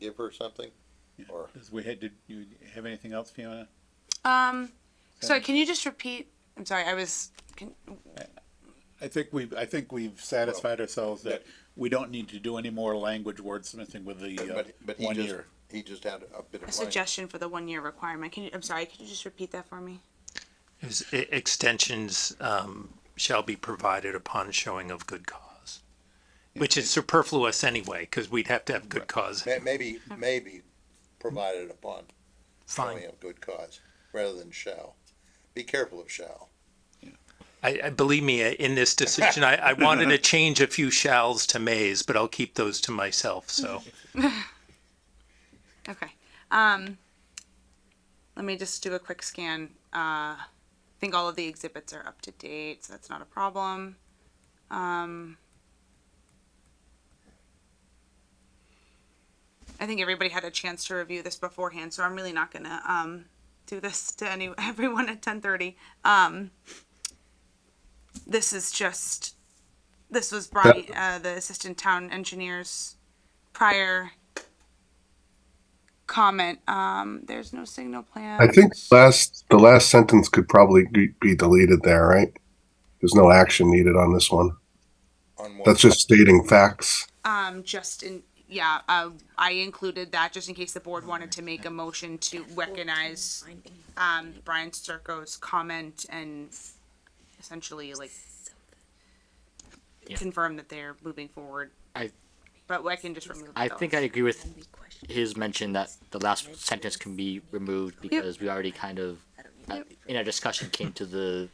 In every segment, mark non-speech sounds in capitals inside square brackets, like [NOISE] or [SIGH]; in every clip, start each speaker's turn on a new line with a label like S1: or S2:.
S1: give her something? Or,
S2: Does we had, did you have anything else, Fiona?
S3: Um, sorry, can you just repeat? I'm sorry, I was. Can,
S2: I think we've, I think we've satisfied ourselves that we don't need to do any more language wordsmithing with the, uh,
S1: but, but he
S2: one
S1: just,
S2: year.
S1: he just had a bit of.
S3: a
S1: language.
S3: suggestion for the one year requirement. Can you? I'm sorry, could you just repeat that for me?
S4: It was, e- extensions um, shall be provided upon showing of good cause, which is superfluous anyway, because we'd have to have good cause.
S1: May- Maybe, maybe provided upon showing
S4: Fine.
S1: of good cause, rather than shall. Be careful of shall.
S4: I, I believe me, uh, in this decision, I, I wanted to change a few shalls to mays, but I'll keep those to myself. So
S3: Okay. Um, let me just do a quick scan. Uh, I think all of the exhibits are up to date, so that's not a problem. Um, I think everybody had a chance to review this beforehand, so I'm really not gonna um, do this to any [LAUGHS] everyone at 10:30. Um, this is just this was Brian, uh, the assistant town engineer's prior comment. Um, there's no signal plan.
S5: I think last the last sentence could probably be- be deleted there, right? There's no action needed on this one.
S1: On what?
S5: That's just stating facts.
S3: Um, just in, yeah, uh, I included that just in case the board wanted to make a motion to recognize, um, Brian Circo's comment and essentially like confirm that they're moving forward.
S6: I-
S3: But I can just remove
S6: I
S3: those.
S6: think I agree with his mention that the last sentence can be removed because we already kind of, uh, in our discussion, came to the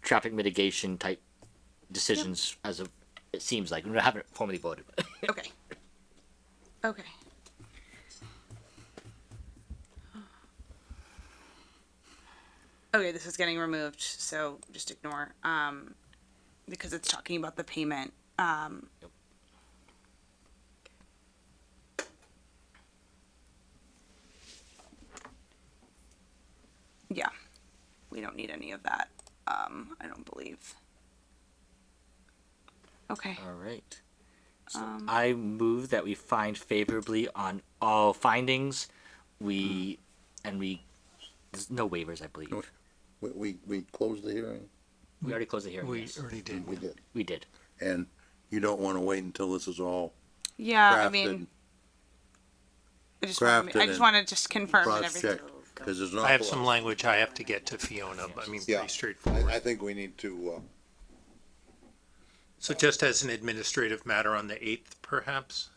S6: traffic mitigation type decisions as a, it seems like, we haven't formally voted.
S3: Okay. Okay. Okay, this is getting removed, so just ignore, um, because it's talking about the payment, um. Yeah, we don't need any of that, um, I don't believe. Okay.
S6: All right. So I move that we find favorably on all findings. We, and we, there's no waivers, I believe.
S1: We, we, we closed the hearing?
S6: We already closed the hearing.
S4: we
S6: yes.
S4: already did.
S1: We did.
S6: We did.
S1: And you don't wanna wait until this is all
S3: Yeah, Uh, I
S1: crafted,
S3: mean, I just want
S1: crafted
S3: to, I just
S1: and
S3: want to just confirm that everything.
S1: cross-checked, cause there's an
S4: I have
S1: awful
S4: some
S1: lot.
S4: language I have to get to Fiona. but I mean,
S1: Yeah.
S4: pretty straightforward.
S1: I, I think we need to, uh,
S4: So just as an administrative matter on the eighth, perhaps?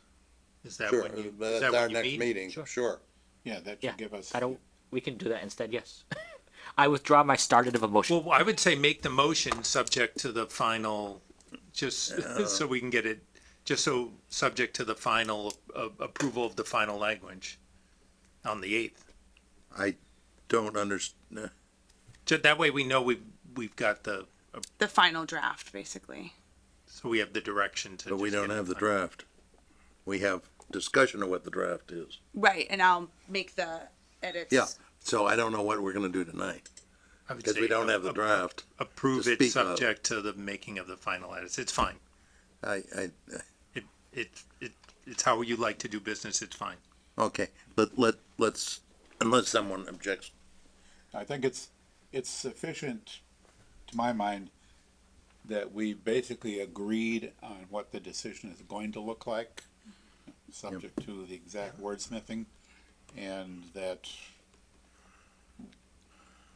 S4: Is that
S1: sure,
S4: when you, is that
S1: that's our
S4: when you
S1: next
S4: meet?
S1: meeting,
S6: Sure.
S1: sure.
S2: Yeah, that
S6: Yeah,
S2: should give us.
S6: I don't, we can do that instead, yes. [LAUGHS] I withdraw my started of a motion.
S4: Well, I would say make the motion subject to the final, just [LAUGHS]
S1: Oh.
S4: so we can get it, just so, subject to the final, uh, approval of the final language on the eighth.
S1: I don't [LAUGHS] understand.
S4: Ju- That way we know we've, we've got the,
S3: The final draft, basically.
S4: so we have the direction to.
S1: But we
S4: just
S1: don't
S4: get it
S1: have the
S4: done.
S1: draft. We have discussion of what the draft is.
S3: Right, and I'll make the edits.
S1: Yeah, so I don't know what we're gonna do tonight,
S4: I would
S1: because we
S4: say uh,
S1: don't have the
S4: a-
S1: draft.
S4: Approve
S1: to
S4: it
S1: speak of.
S4: subject to the making of the final edits. It's fine.
S1: I, I,
S4: It, it, it, it's how you like to do business. It's fine.
S1: okay, let, let, let's, unless someone objects,
S2: I think it's, it's sufficient, to my mind, that we basically agreed on what the decision is going to look like, subject to the exact wordsmithing, and that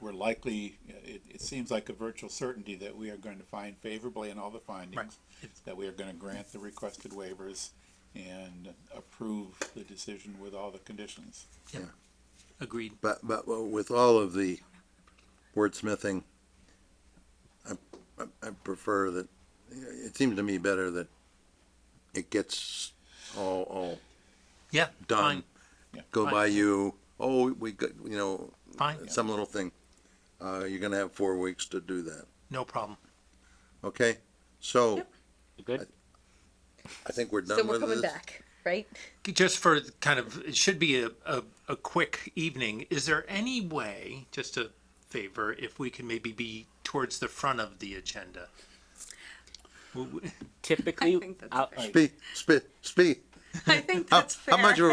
S2: we're likely, it, it seems like a virtual certainty that we are going to find favorably in all the findings, that we are gonna grant the requested waivers and approve the decision with all the conditions.
S4: Agreed.
S1: but, but with all of the wordsmithing, I, I, I prefer that, it seems to me better that it gets all, all
S4: Yeah.
S1: done.
S2: Yeah.
S1: Go
S4: Fine.
S1: by you, oh, we got, you know,
S4: Fine. Fine.
S1: some little thing. Uh, you're gonna have four weeks to do that,
S4: No problem.
S1: okay? So,
S6: You Good?
S1: I think we're
S7: So
S1: done
S7: we're
S1: with
S7: coming
S1: this.
S7: back, right?
S4: just for kind of it should be a, a, a quick evening is there any way just a favor if we can maybe be towards the front of the agenda W- w-
S6: Typically,
S3: think that's
S6: I'll-
S1: Speak, speak, speak.
S3: [LAUGHS] I think that's
S1: How much of a